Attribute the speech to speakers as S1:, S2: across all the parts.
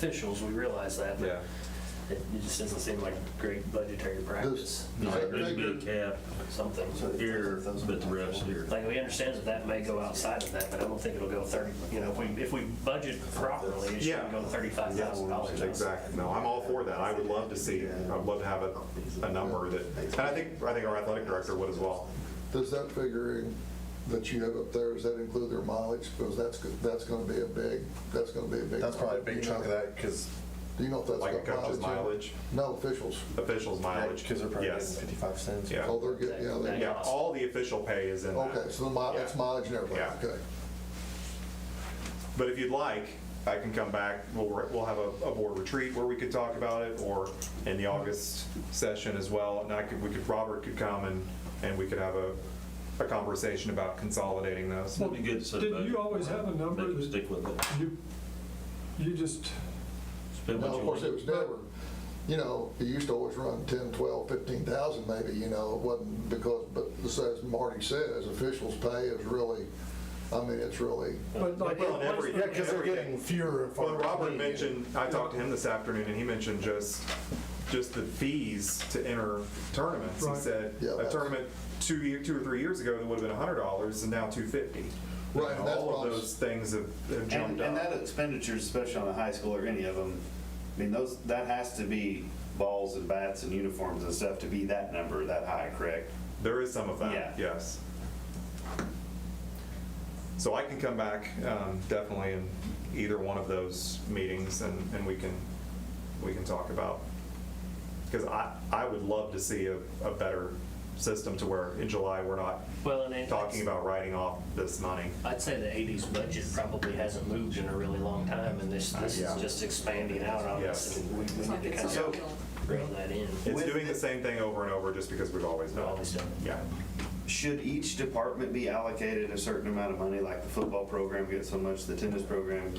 S1: officials, we realize that, but
S2: Yeah,
S1: it it just doesn't seem like great budgetary practice.
S3: No, there's a big cap
S1: Something,
S3: here, but the rest here.
S1: like, we understand that that may go outside of that, but I don't think it'll go 30, you know, if we, if we budget properly, it shouldn't
S2: Yeah.
S1: go $35,000.
S2: exactly. No, I'm all for that. I would love to see, I'd love to have a, a number that, and I think, I think our athletic director would as well.
S4: Does that figuring that you have up there, does that include their mileage? Because that's, go- that's going to be a big, that's going to be a big.
S5: That's probably a big chunk of that, because,
S4: Do you know if that's
S2: Like a
S4: got mileage?
S2: coach's
S4: in it?
S2: mileage,
S4: No, officials.
S2: officials mileage.
S5: because they're probably getting
S2: Yes,
S5: 55 cents.
S2: yeah.
S4: Oh, they're getting, yeah, they,
S2: Yeah, all the official pay is in that.
S4: okay, so the mi- that's
S2: Yeah.
S4: mileage and everything,
S2: Yeah.
S4: okay.
S2: But if you'd like, I can come back, we'll, we'll have a, a board retreat where we could talk about it, or in the August session as well, and I could, we could, Robert could come and, and we could have a, a conversation about consolidating those.
S3: It'd be good to set a
S6: Did
S3: budget,
S6: you always have a
S3: make
S6: number
S3: them
S6: that
S3: stick with it.
S6: you, you just,
S3: Spend what
S4: Now,
S3: you
S4: of course, it
S3: want.
S4: was never, you know, it used to always run 10, 12, 15,000 maybe, you know, it wasn't because, but as Marty says, officials' pay is really, I mean, it's really,
S6: but like,
S2: Well, and every-
S5: Yeah, because they're
S2: every-
S5: getting fewer. and
S2: Well,
S5: farther
S2: Robert
S5: between.
S2: mentioned, I talked to him this afternoon, and he mentioned just, just the fees to enter tournaments. He
S6: Right.
S2: said,
S4: Yeah,
S2: a
S4: that's-
S2: tournament two, year- two or three years ago, that would have been hundred dollars, and now two fifty.
S4: Right, and that's
S2: All
S4: what I
S2: of
S4: was-
S2: those things have have
S7: And,
S2: jumped
S7: and that
S2: up.
S7: expenditure, especially on a high school or any of them, I mean, those, that has to be balls and bats and uniforms and stuff to be that number, that high, correct?
S2: There is some of that,
S7: Yeah.
S2: yes. So I can come back, um, definitely in either one of those meetings, and, and we can, we can talk about because I, I would love to see a, a better system to where in July we're not
S1: Well, and it-
S2: talking about writing off this money.
S1: I'd say the 80s budget probably hasn't moved in a really long time, and this, this
S2: Yeah.
S1: is just expanding out on us,
S2: Yes.
S1: and we we
S8: It's like
S1: need to
S8: it's
S1: kind
S8: on
S1: of
S8: the bill.
S1: reel that in.
S2: It's doing the same thing over and over just because we've always done
S1: Always
S2: it.
S1: done it.
S2: Yeah.
S7: Should each department be allocated a certain amount of money, like the football program gets so much, the tennis program?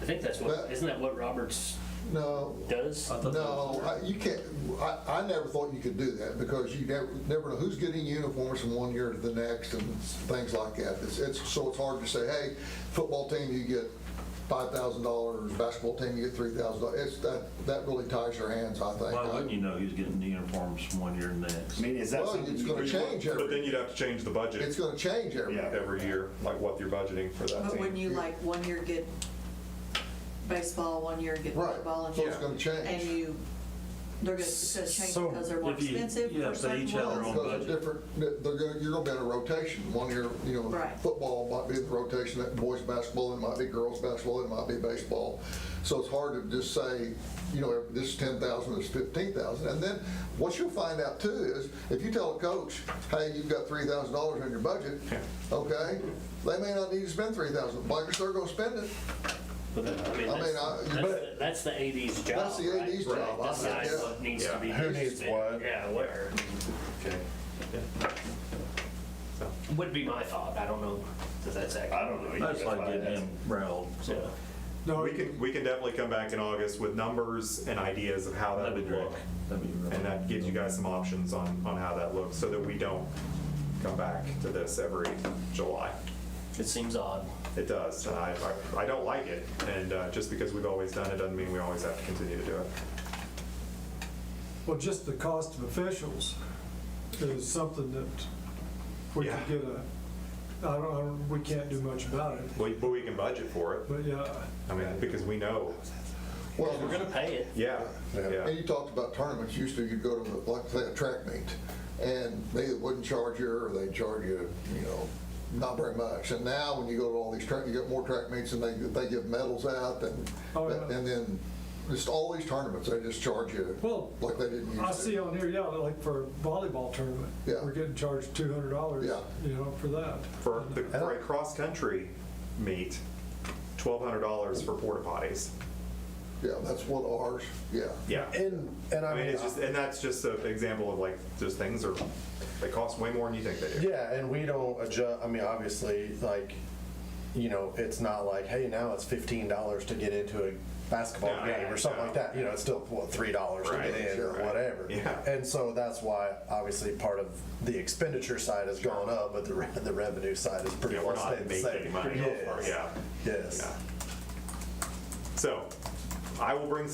S1: I think that's what,
S4: But-
S1: isn't that what Roberts
S4: no,
S1: does?
S3: I thought that was-
S4: No, I- you can't, I, I never thought you could do that, because you never, never know who's getting uniforms from one year to the next and things like that. It's, it's, so it's hard to say, hey, football team, you get five thousand dollars, basketball team, you get three thousand dollars. It's, that, that really ties your hands, I think.
S3: Why wouldn't you know he's getting the uniforms from one year to the
S7: I
S3: next?
S7: mean, is that
S4: Well,
S7: something?
S4: it's
S7: you
S4: gonna
S7: could-
S4: change
S2: But then
S4: every,
S2: you'd have to change the
S4: it's
S2: budget
S4: gonna change every.
S7: Yeah.
S2: every year, like what you're budgeting for that
S8: But when
S2: team.
S8: you like, one year get baseball, one year get
S4: Right.
S8: football. and
S4: So it's gonna change.
S8: And you, they're gonna, it's gonna change
S5: So
S8: because they're more
S3: if you-
S8: expensive
S3: yeah,
S8: for
S3: if they
S8: certain
S3: each have their own
S8: ones.
S4: Because of
S3: budget.
S4: different, they're gonna, you're gonna be in a rotation, one year, you know,
S8: Right.
S4: football might be the rotation, that boys basketball, then it might be girls basketball, then it might be baseball. So it's hard to just say, you know, this is ten thousand, this is fifteen thousand, and then what you'll find out too is, if you tell a coach, hey, you've got three thousand dollars in your budget, okay, they may not need to spend three thousand, but they're gonna spend it.
S1: But that- I mean,
S4: I mean,
S1: that's,
S4: I-
S1: that's, that's the 80s job.
S4: That's the
S1: right?
S4: 80s job, I
S1: Decide
S4: think, yeah.
S1: what needs to
S2: Yeah.
S1: be
S5: Who
S1: used
S5: needs
S1: and-
S5: what?
S1: Yeah, where.
S7: Okay.
S1: Would be my thought. I don't know that that's accurate.
S7: I don't know. either.
S3: I just
S7: That's why
S3: like
S7: I
S3: getting
S7: asked.
S3: him riled, so.
S1: So,
S6: no,
S2: We can, we can definitely come back in August with numbers and ideas of how that
S3: That'd
S2: would
S3: be great.
S2: look.
S3: That'd be really-
S2: And that gives you guys some options on, on how that looks, so that we don't come back to this every July.
S1: it seems odd.
S2: It does, and I, I- I don't like it, and uh, just because we've always done it doesn't mean we always have to continue to do it.
S6: well, just the cost of officials is something that we
S2: Yeah.
S6: could get a, I don't, I don't, we can't do much about it,
S2: We- But we can budget for it,
S6: but yeah.
S2: I mean, because we know,
S4: Well,
S1: We're going to pay it.
S2: yeah,
S4: And
S2: yeah,
S4: you talked about tournaments, used to you'd go to, like, say, a track meet, and they either wouldn't charge you, or they'd charge you, you know, not very much. And now, when you go to all these track, you get more track meets, and they, they give medals out, and,
S6: Oh, yeah.
S4: and then, just all these tournaments, they just charge you,
S6: Well,
S4: like they didn't
S6: I
S4: used
S6: see
S4: to.
S6: on here, yeah, like for a volleyball tournament,
S4: Yeah.
S6: we're getting charged two hundred dollars,
S4: Yeah.
S6: you know, for that.
S2: for, the- for a cross-country meet, twelve hundred dollars for porta potties,
S4: Yeah, that's what ours, yeah.
S2: yeah.
S5: And, and
S2: I
S5: I
S2: mean, it's just,
S5: mean, uh,
S2: and that's just an example of like, just things are, they cost way more than you think they do.
S5: yeah, and we don't adjust, I mean, obviously, like, you know, it's not like, hey, now it's $15 to get into a basketball
S2: No,
S5: game or something
S2: no.
S5: like that. You know, it's still, what, $3 to
S2: Right,
S5: get in or
S2: right.
S5: whatever.
S2: Yeah.
S5: And so that's why, obviously, part of the expenditure side has gone up, but the, re- the revenue side is pretty
S2: Yeah, we're
S5: well
S2: not
S5: stayed the
S2: making
S5: same.
S2: any money.
S5: Yes.
S2: Yeah.
S5: Yes.
S2: Yeah. So, I will bring